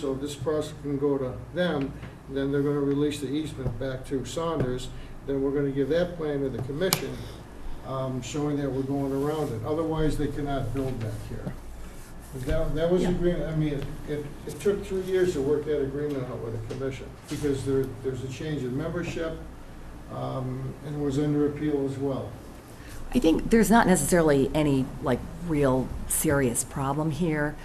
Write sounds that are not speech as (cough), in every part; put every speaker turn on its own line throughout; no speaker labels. So this process can go to them, then they're gonna release the easement back to Saunders, then we're gonna give that plan to the commission, um, showing that we're going around it. Otherwise, they cannot build back here. But That, that was
Yeah.
agreement, I mean, it- it, it took three years to work that agreement out with the commission, because there, there's a change in membership, um, and it was under appeal as well.
I think there's not necessarily any, like, real serious problem here.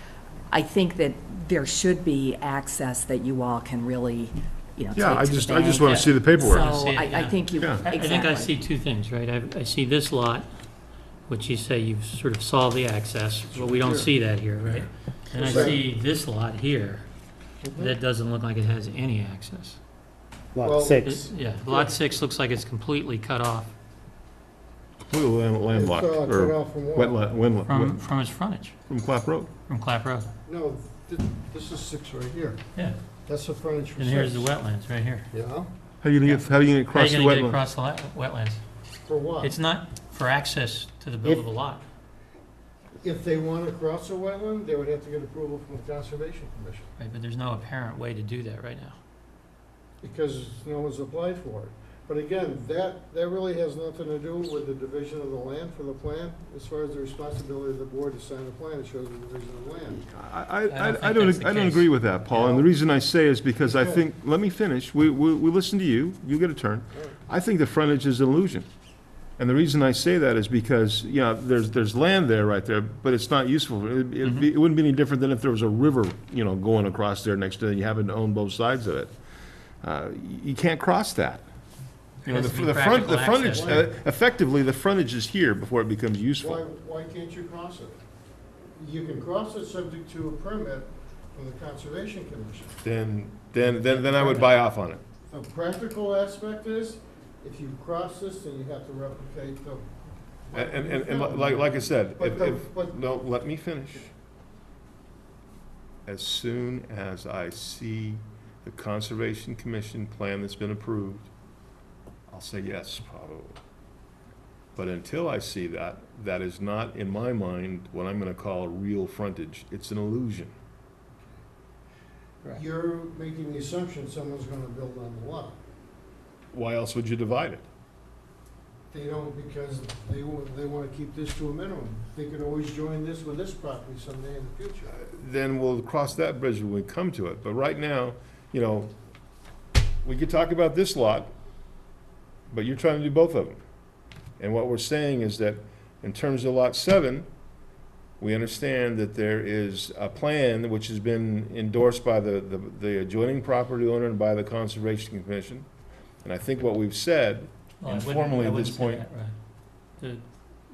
I think that there should be access that you all can really, you know, take to the
Yeah, I
bank.
just, I just want to see the paperwork.
So
See it,
I, I
yeah.
think you,
Yeah.
I-
exactly.
I think I see two things, right? I, I see this lot, which you say you've sort of solved the access, but we don't see that here, right? And I
Right.
see this lot here, that doesn't look like it has any access.
Well,
Lot
It-
six.
Yeah, lot six looks like it's completely cut off
Completely land- landlocked,
It's, uh, cut
or
off from one.
wetland, wetland,
from, from its frontage,
from Clap Road.
from Clap Road.
No, th- this is six right here.
Yeah,
That's the frontage for
and here's the
six.
wetlands, right here.
Yeah,
How you gonna get, how you gonna
How are
cross the
you gonna get
wetland?
across the la- wetlands?
for what?
It's not for access to the buildable lot.
If they want to cross a wetland, they would have to get approval from the Conservation Commission,
Right, but there's no apparent way to do that right now.
because no one's applied for it. But again, that, that really has nothing to do with the division of the land for the plan, as far as the responsibility of the board to sign the plan, it shows the division of land.
I, I,
I don't
I- I
think
don't,
that's the
I don't
case.
agree with that, Paul, and the reason I say is because I
Okay.
think, let me finish, we, we, we listen to you, you get a turn.
All right.
I think the frontage is an illusion. And the reason I say that is because, you know, there's, there's land there, right there, but it's not useful. It'd- it'd
Mm-hmm.
be- It wouldn't be any different than if there was a river, you know, going across there next to, it and you happen to own both sides of it. Uh, y- You can't cross that. You
There
know,
has
the
to be
the front, the
practical
frontage,
access.
uh, effectively, the frontage is here before it becomes
Why,
useful.
why can't you cross it? You can cross it subject to a permit from the Conservation Commission.
Then, then, then, then I would buy off on it.
The practical aspect is, if you cross this, then you have to replicate the.
And, and, and li- like, like I said,
But
if,
the-
if,
but-
no, let me finish. As soon as I see the Conservation Commission plan that's been approved, I'll say yes, probably. But until I see that, that is not, in my mind, what I'm gonna call real frontage. It's an illusion.
You're making the assumption someone's gonna build on the lot.
Why else would you divide it?
They don't because they want, they wanna keep this to a minimum. They could always join this with this property someday in the future.
then we'll cross that bridge when we come to it. But right now, you know, we could talk about this lot, but you're trying to do both of them. And what we're saying is that in terms of lot seven, we understand that there is a plan which has been endorsed by the, the- the adjoining property owner and by the Conservation Commission. And I think what we've said,
Well, I wouldn't-
informally
I
at
wouldn't
this
say
point.
that, right. The,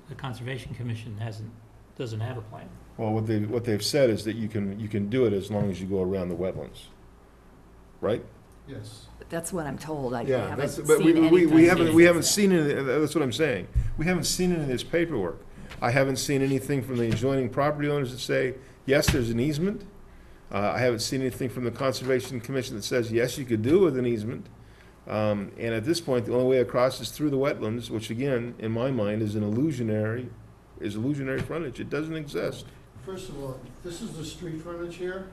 the Conservation Commission hasn't, doesn't have a plan.
well, what they, what they've said is that you can, you can do it as long as you go around the wetlands, right?
Yes.
That's what I'm told. I
Yeah,
haven't
that's,
seen
but we, we,
anything
we haven't, we
that
haven't
says
seen any, that's what I'm saying. We haven't seen any of this paperwork. I haven't seen anything from the adjoining property owners that say, yes, there's an easement. Uh, I haven't seen anything from the Conservation Commission that says, yes, you could do with an easement. Um, and at this point, the only way across is through the wetlands, which again, in my mind, is an illusionary, is illusionary frontage. It doesn't exist.
First of all, this is the street frontage here.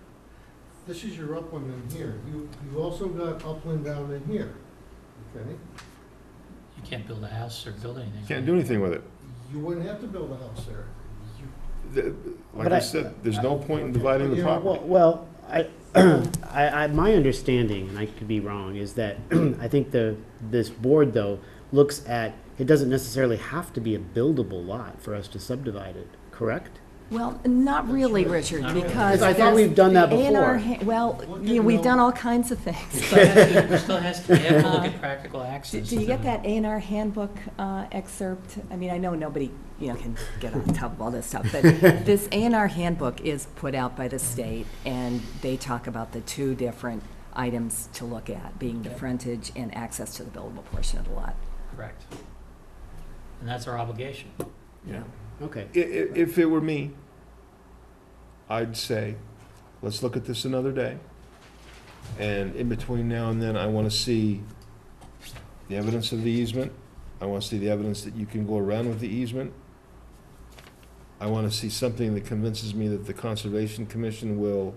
This is your upland in here. You, you've also got upland down in here, okay?
You can't build a house or build anything.
Can't do anything with it.
You wouldn't have to build a house there. You-
The- Like
But
I
I-
said, there's no point in dividing the
You know,
property.
Well, well, I, (clears throat) I, I, my understanding, and I could be wrong, is that (clears throat) I think the, this board though, looks at, it doesn't necessarily have to be a buildable lot for us to subdivide it, correct?
Well, not really, Richard,
Not really.
because.
I thought we've done that
there's the A&R
before.
ha- Well,
Look
you know,
at
we've
Mel-
done all kinds of things.
Still has to- Still has to, they have to look at practical
(laughs) Do-
access.
Do you
to-
get that A and R handbook uh, excerpt? I mean, I know nobody, you know, can get on top of all this stuff, but this A and R handbook is put out by the state, and they talk about the two different items to look at, being the
Yeah.
frontage and access to the buildable portion of the lot.
Correct. And that's our obligation.
Yeah.
Okay,
I- i- if it were me, I'd say, let's look at this another day. And in between now and then, I wanna see the evidence of the easement. I wanna see the evidence that you can go around with the easement. I wanna see something that convinces me that the Conservation Commission will